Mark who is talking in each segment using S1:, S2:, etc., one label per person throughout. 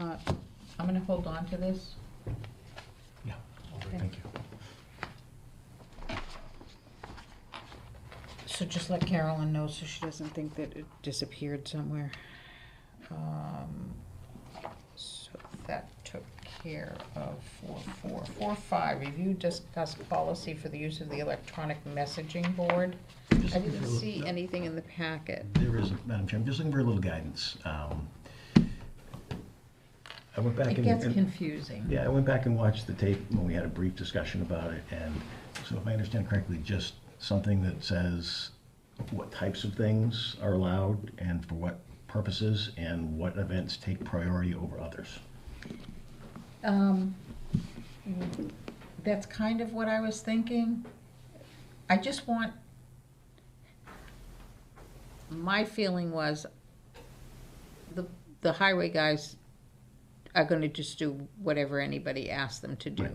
S1: Uh,
S2: I'm gonna hold on to this.
S3: Yeah,
S2: Okay.
S3: thank you.
S1: So just let Carolyn know so she doesn't think that it disappeared somewhere. Um, So that took care of four, four, four, five, review, discuss policy for the use of the electronic messaging board. I didn't see anything in the packet.
S3: There is, Madam Chair, I'm just looking for a little guidance. Um, I went back
S2: It
S3: and.
S2: gets
S3: and-
S2: confusing.
S3: Yeah, I went back and watched the tape when we had a brief discussion about it, and so if I understand correctly, just something that says what types of things are allowed and for what purposes, and what events take priority over others.
S2: Um, That's kind of what I was thinking. I just want,
S1: My feeling was the, the highway guys are gonna just do whatever anybody asks them to do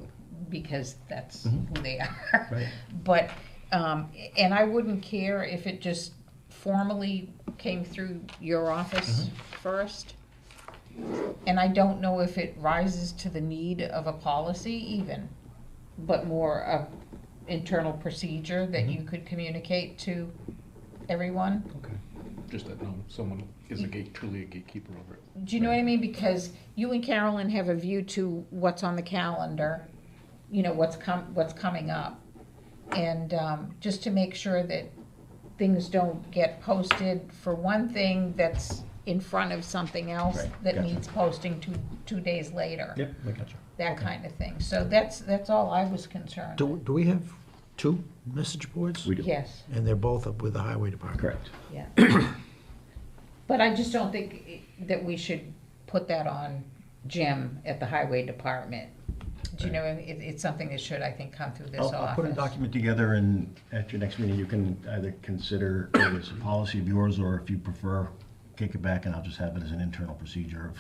S1: because that's who they are.
S3: Right.
S1: But, um, and I wouldn't care if it just formally came through your office first. And I don't know if it rises to the need of a policy even, but more of internal procedure that you could communicate to everyone.
S4: Okay. Just that, no, someone is a gate, truly a gatekeeper over it.
S1: Do you know what I mean? Because you and Carolyn have a view to what's on the calendar, you know, what's com- what's coming up. And, um, just to make sure that things don't get posted for one thing that's in front of something else
S3: Right,
S1: that
S3: gotcha.
S1: needs posting two, two days later.
S3: Yep, I got you.
S1: That kind of thing. So that's, that's all I was concerned.
S5: Do, do we have two message boards?
S3: We do.
S1: Yes,
S5: And they're both up with the highway department?
S3: Correct.
S1: yeah. But I just don't think i- that we should put that on Jim at the highway department. Do you know, it, it's something that should, I think, come through this
S3: I'll, I'll put a
S1: office.
S3: document together, and at your next meeting, you can either consider whether it's a policy of yours, or if you prefer, kick it back, and I'll just have it as an internal procedure of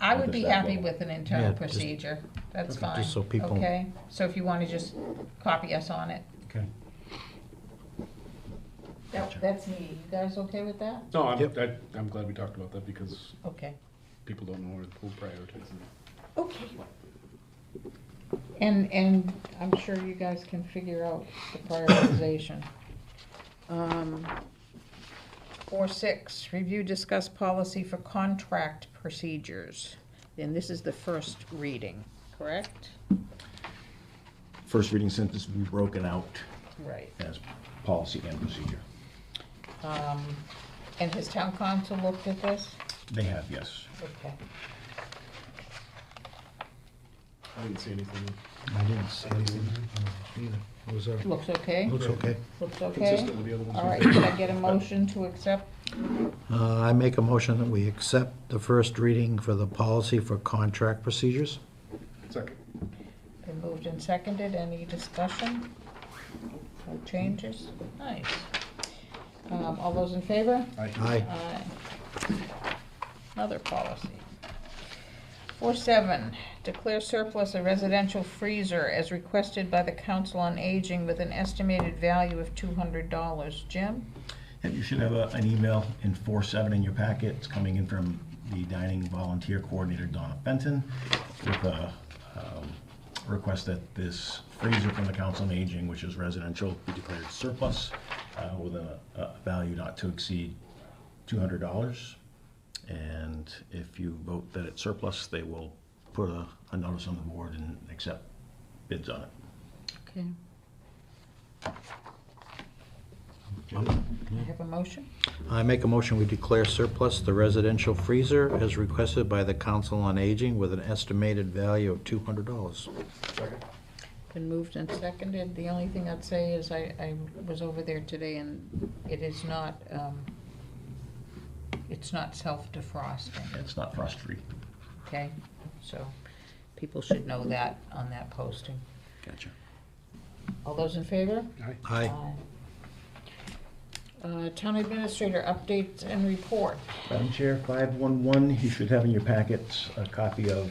S1: I would be
S3: Just that
S1: happy
S3: level.
S1: with an internal
S5: Yeah, just-
S1: procedure, that's fine,
S5: Just so people-
S1: okay? So if you wanna just copy us on it.
S3: Okay.
S1: That, that's me, you guys okay with that?
S4: No, I'm,
S5: Yep.
S4: I, I'm glad we talked about that because
S1: Okay.
S4: people don't know where who prioritizes it.
S1: Okay. And, and I'm sure you guys can figure out the prioritization. Um, Four six, review, discuss policy for contract procedures. And this is the first reading, correct?
S3: first reading sentence be broken out
S1: Right.
S3: as policy and procedure.
S1: Um, and has town council looked at this?
S3: They have, yes.
S1: Okay.
S4: I didn't see anything
S5: I didn't see anything either. It was, uh,
S1: Looks okay?
S5: looks okay.
S1: Looks okay?
S4: consistent with the other ones.
S1: All
S4: we've
S1: right,
S4: done.
S1: can I get a motion to accept?
S5: Uh, I make a motion that we accept the first reading for the policy for contract procedures.
S4: Second,
S1: Been moved and seconded, any discussion? No changes? Nice. Um, all those in favor?
S4: I,
S5: Aye.
S1: Aye. Another policy. Four seven, declare surplus a residential freezer as requested by the Council on Aging with an estimated value of two hundred dollars. Jim?
S3: And you should have a- an email in four seven in your packet. It's coming in from the dining volunteer coordinator, Donna Fenton, with a um, request that this freezer from the Council on Aging, which is residential, be declared surplus uh, with a a value not to exceed $200. And if you vote that it's surplus, they will put a a notice on the board and accept bids on it.
S1: Okay. I have a motion?
S5: I make a motion we declare surplus the residential freezer as requested by the Council on Aging with an estimated value of $200.
S4: second.
S1: Been moved and seconded. The only thing I'd say is I, I was over there today and it is not, um, it's not self-defrosting,
S3: It's not frost-free.
S1: okay? So people should know that on that posting.
S3: Gotcha.
S1: All those in favor?
S4: Aye.
S5: Aye.
S1: Uh, town administrator updates and report.
S3: Madam Chair, 511, you should have in your packets a copy of